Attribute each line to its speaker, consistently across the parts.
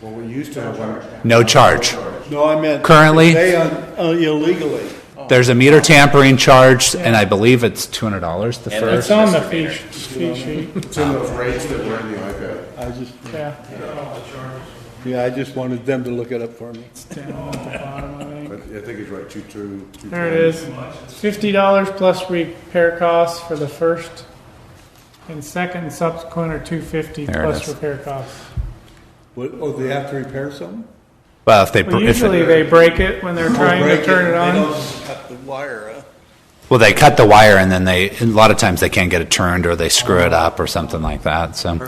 Speaker 1: Well, we used to have one.
Speaker 2: No charge.
Speaker 1: No, I meant.
Speaker 2: Currently-
Speaker 1: They, un- uh, illegally.
Speaker 2: There's a meter tampering charge, and I believe it's $200 the first.
Speaker 3: It's on the fee, sh- fee sheet,
Speaker 1: It's in those rates that were in the iPad. I just,
Speaker 3: yeah.
Speaker 1: yeah, I just wanted them to look it up for me.
Speaker 3: It's down at the bottom, I think.
Speaker 1: But I think he's right, two, two. two
Speaker 3: There it is. Fifty dollars plus repair costs for the first and second and subsequent are two fifty
Speaker 2: There it
Speaker 3: plus
Speaker 2: is.
Speaker 3: repair costs.
Speaker 1: What, oh, they have to repair something?
Speaker 2: Well, if they,
Speaker 3: Well,
Speaker 2: if
Speaker 3: usually
Speaker 2: it-
Speaker 3: they break it when they're trying to turn it on.
Speaker 1: Cut the wire, huh?
Speaker 2: well, they cut the wire, and then they, a lot of times they can't get it turned, or they screw it up, or something like that, so.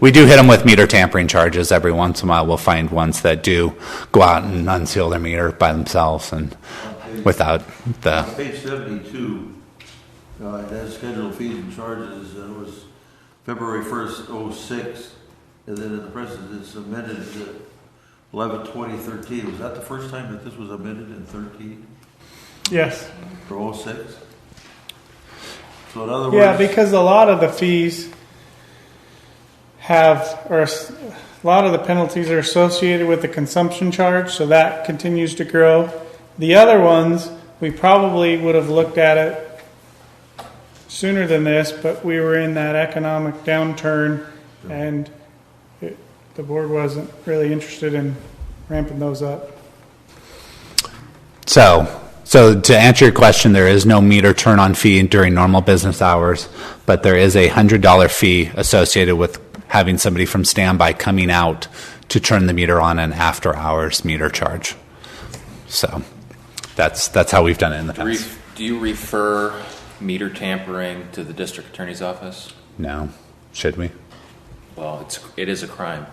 Speaker 2: We do hit them with meter tampering charges every once in a while. We'll find ones that do go out and unseal their meter by themselves and without the
Speaker 4: Page seventy-two, uh, it has scheduled fees and charges, and it was February first, oh six, and then in the present it's amended to eleven twenty thirteen. Was that the first time that this was amended in thirteen
Speaker 3: Yes.
Speaker 4: or oh six? So in other
Speaker 3: Yeah,
Speaker 4: words,
Speaker 3: because a lot of the fees have, or s- a lot of the penalties are associated with the consumption charge, so that continues to grow. The other ones, we probably would have looked at it sooner than this, but we were in that economic downturn and it, the board wasn't really interested in ramping those up.
Speaker 2: So, so to answer your question, there is no meter turn-on fee during normal business hours, but there is a $100 fee associated with having somebody from standby coming out to turn the meter on an after-hours meter charge. So that's, that's how we've done it in the
Speaker 5: Do
Speaker 2: past.
Speaker 5: ref- do you refer meter tampering to the district attorney's office?
Speaker 2: No, should we?
Speaker 5: Well, it's, it is a crime,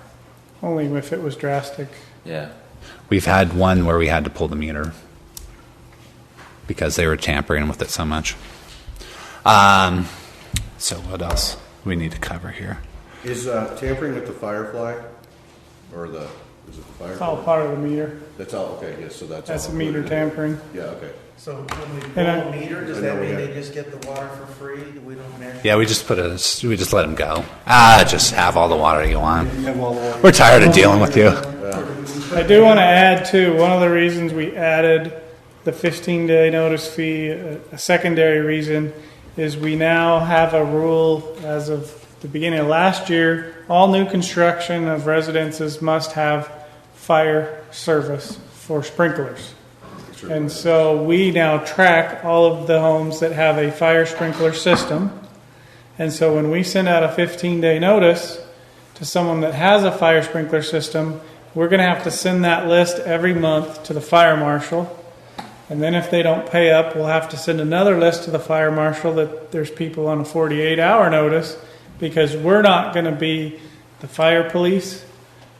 Speaker 3: Only if it was drastic.
Speaker 5: yeah.
Speaker 2: We've had one where we had to pull the meter because they were tampering with it so much. Um, so what else we need to cover here?
Speaker 6: Is uh, tampering with the Firefly, or the, is it the
Speaker 3: It's all
Speaker 6: Firefly?
Speaker 3: part of the meter.
Speaker 6: That's all, okay, yes, so that's all.
Speaker 3: That's a
Speaker 6: included
Speaker 3: meter
Speaker 6: in it.
Speaker 3: tampering.
Speaker 6: Yeah, okay.
Speaker 7: So when we
Speaker 3: And I-
Speaker 7: pull a meter, does that mean they just get the water for free? We don't measure?
Speaker 2: Yeah, we just put a, we just let them go. Ah, just have all the water you want.
Speaker 1: You have all the wire.
Speaker 2: We're tired of dealing with you.
Speaker 3: I do want to add too, one of the reasons we added the 15 day notice fee, a a secondary reason, is we now have a rule as of the beginning of last year all new construction of residences must have fire service for sprinklers. And so we now track all of the homes that have a fire sprinkler system. And so when we send out a 15 day notice to someone that has a fire sprinkler system, we're going to have to send that list every month to the fire marshal. And then if they don't pay up, we'll have to send another list to the fire marshal that there's people on a 48 hour notice because we're not going to be the fire police.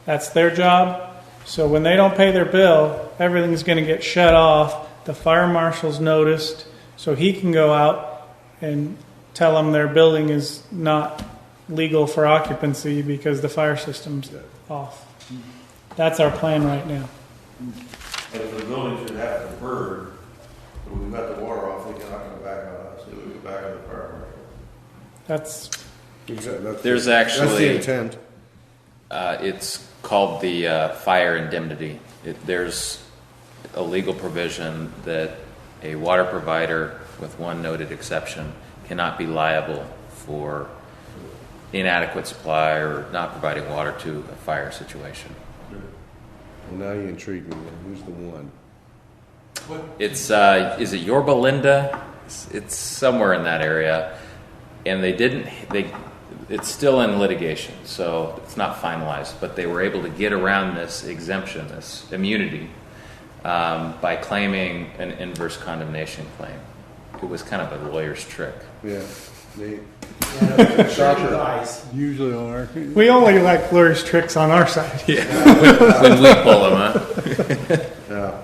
Speaker 3: That's their job. So when they don't pay their bill, everything's going to get shut off. The fire marshal's noticed, so he can go out and tell them their building is not legal for occupancy because the fire system's off. That's our plan right now.
Speaker 4: but if the building should have to burn, and we've got the water off, they cannot come back on us, they would go back on the fire marshal.
Speaker 3: That's
Speaker 1: Exactly, that's-
Speaker 5: There's
Speaker 1: That's the
Speaker 5: actually-
Speaker 1: intent.
Speaker 5: Uh, It's called the uh, fire indemnity. It- There's a legal provision that a water provider, with one noted exception, cannot be liable for inadequate supply or not providing water to a fire situation.
Speaker 6: Well, now you intrigue me, who's the one?
Speaker 5: It's uh, is it Yorba Linda? It's, it's somewhere in that area, and they didn't. They it's still in litigation, so it's not finalized. But they were able to get around this exemption, this immunity, um, by claiming an inverse condemnation claim. It was kind of a lawyer's trick.
Speaker 6: Yeah, Nate.
Speaker 7: Guys.
Speaker 1: Usually on our,
Speaker 3: we only like Lori's tricks on our side.
Speaker 5: when we pull them, huh?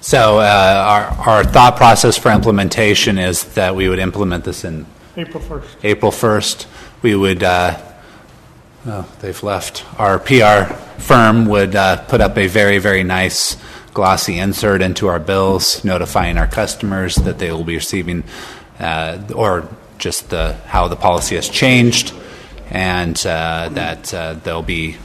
Speaker 2: So uh, our, our thought process for implementation is that we would implement this in
Speaker 3: April 1st.
Speaker 2: April 1st. We would, uh, oh, they've left. Our PR firm would uh, put up a very, very nice glossy insert into our bills, notifying our customers that they will be receiving, uh, or just the, how the policy has changed, and uh, that uh, they'll be